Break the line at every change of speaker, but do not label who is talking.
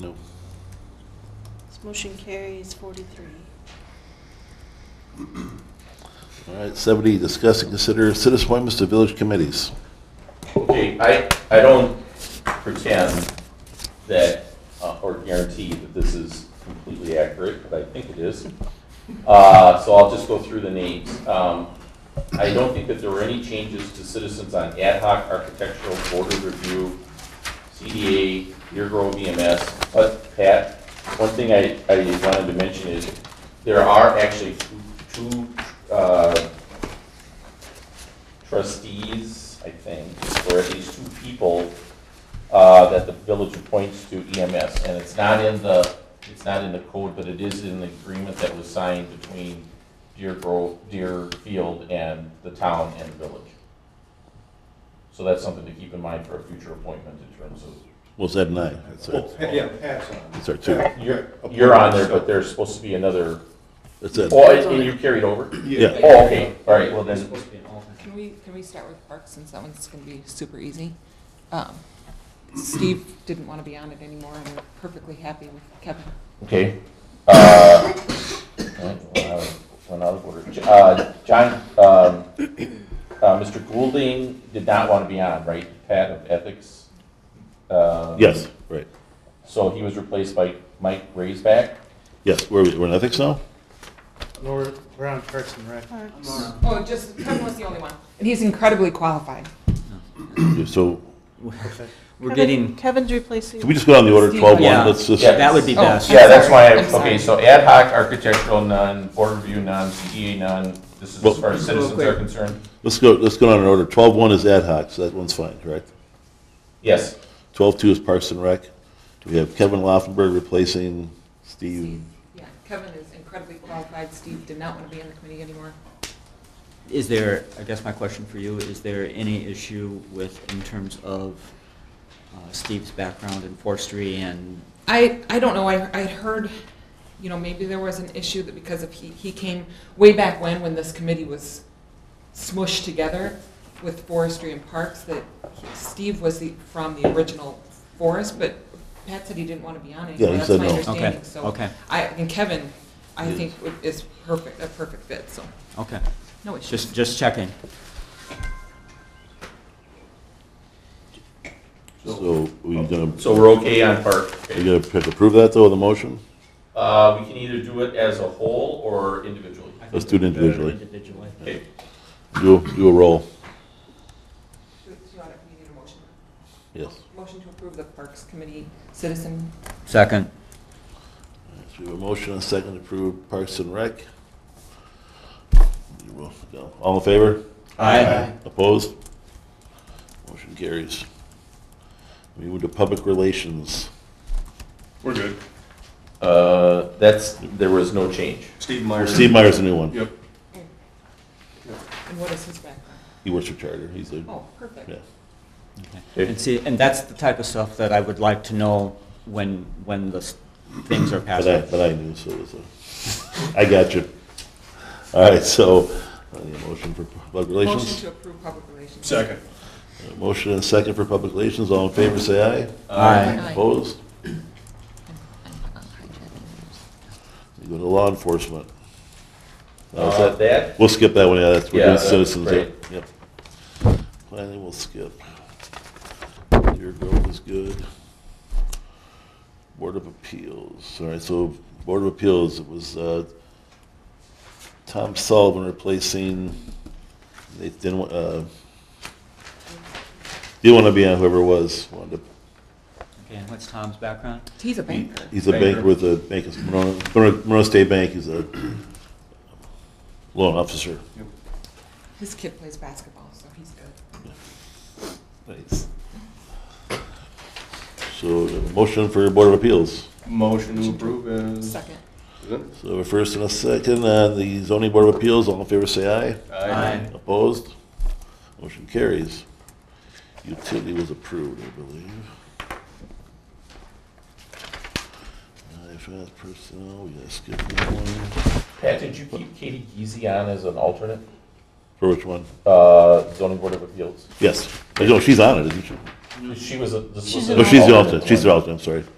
No.
This motion carries forty-three.
All right, 70, discuss and consider citizen appointments to village committees.
Okay, I, I don't pretend that, uh, or guarantee that this is completely accurate, but I think it is. Uh, So I'll just go through the names. Um, I don't think that there were any changes to citizens on ad hoc architectural board of review, CDA, Deer Grove EMS. But Pat, one thing I, I wanted to mention is there are actually two, two uh, trustees, I think, or at least two people uh, that the village appoints to EMS. And it's not in the, it's not in the code, but it is in the agreement that was signed between Deer Grove, Deerfield and the town and the village. So that's something to keep in mind for a future appointment in terms of,
Was that an aye? That's our,
Yeah, Pat's on.
that's our two.
you're, you're on there, but there's supposed to be another,
That's it.
oh, and you carried over?
Yeah.
Oh, okay, all right, well
It's
then,
supposed to be an alternate.
Can we, can we start with Parks, since that one's gonna be super easy? Um, Steve didn't wanna be on it anymore, and we're perfectly happy with Kevin.
Okay. Uh, Went out of order. J- uh, John, um, uh, Mr. Goulding did not want to be on, right? Pat of Ethics? Uh,
Yes, right.
So he was replaced by Mike Raisback?
Yes, we're, we're in ethics now?
No, we're, we're on Parks and Rec.
Oh, just, Kevin was the only one, and he's incredibly qualified.
So,
Okay.
We're getting,
Kevin's replacing.
can we just go down the order
Steve,
12
yeah,
one? Let's just,
that would be
Oh,
best.
I'm
Yeah, that's why,
sorry,
I-
I'm sorry.
okay, so ad hoc architectural none, board review none, CDA none. This is
Well-
as far as citizens
Real
are
quick.
concerned?
let's go, let's go down in order. 12 one is ad hoc, so that one's fine, correct?
Yes.
12 two is Parks and Rec. We have Kevin Laufenberg replacing Steve.
Yeah, Kevin is incredibly qualified, Steve did not wanna be on the committee anymore.
Is there, I guess my question for you, is there any issue with, in terms of uh, Steve's background in forestry and,
I, I don't know, I, I'd heard, you know, maybe there was an issue that because of, he, he came way back when, when this committee was smushed together with forestry and parks, that he- Steve was the, from the original forest, but Pat said he didn't want to be on it.
Yeah, he said no.
That's my
okay,
understanding, so,
okay,
I, and Kevin, I
Yes.
think would- is perfect, a perfect fit, so,
okay.
no issues.
Just, just checking.
So we're gonna,
So we're okay on park? okay.
we gonna pick- approve that though, the motion?
Uh, We can either do it as a whole or individually.
I think
Let's do it
it'd be better
individually.
Individually.
Okay.
Do, do a roll.
Do you want to, we need a motion?
Yes.
Motion to approve the Parks Committee citizen
Second.
So we have a motion and a second to approve Parks and Rec. You will go. All in favor?
Aye.
Opposed? Motion carries. We move to public relations.
We're good.
Uh, That's, there was no change.
Steve Meyer.
Steve Meyer's the new one.
Yep.
and what is his background?
He works for Charter. He's a,
Oh, perfect.
yeah.
Okay.
And see, and that's the type of stuff that I would like to know when, when the s- things are passed.
But I, but I knew, so it was a, I got you. All right, so, uh, the motion for public
Motion
relations?
to approve public relations.
Second.
Uh, Motion and a second for public relations. All in favor, say aye.
Aye.
Aye.
Opposed? We go to law enforcement. Now, is
Uh,
that-
that,
We'll skip that one, yeah, that's, we're
Yeah,
doing
that's
citizens,
right.
yep. Planning, we'll skip. Deer Grove is good. Board of Appeals, all right, so Board of Appeals, it was, uh, Tom Sullivan replacing, they didn't, wa- uh, didn't want to be on whoever it was, wanted to,
Okay, and what's Tom's background?
He's a banker.
he's a banker with a, bank, is Monroe- Monroe Monroe State Bank, he's a loan officer.
His kid plays basketball, so he's good.
Nice. So, a motion for Board of Appeals.
uh, Motion to approve is.
Second.
So a first and a second on the zoning Board of Appeals, all in favor say aye.
Aye.
Opposed? Motion carries. Utility was approved, I believe. IFS personnel, we gotta skip that one.
Pat, did you keep Katie Geezy on as an alternate,
For which one?
uh, zoning board of appeals?
Yes, no, she's on it, isn't she?
She was a. this was
She's
an
No, she's the
alternate
alternate, Oh, she's the
one.
alternate, I'm sorry.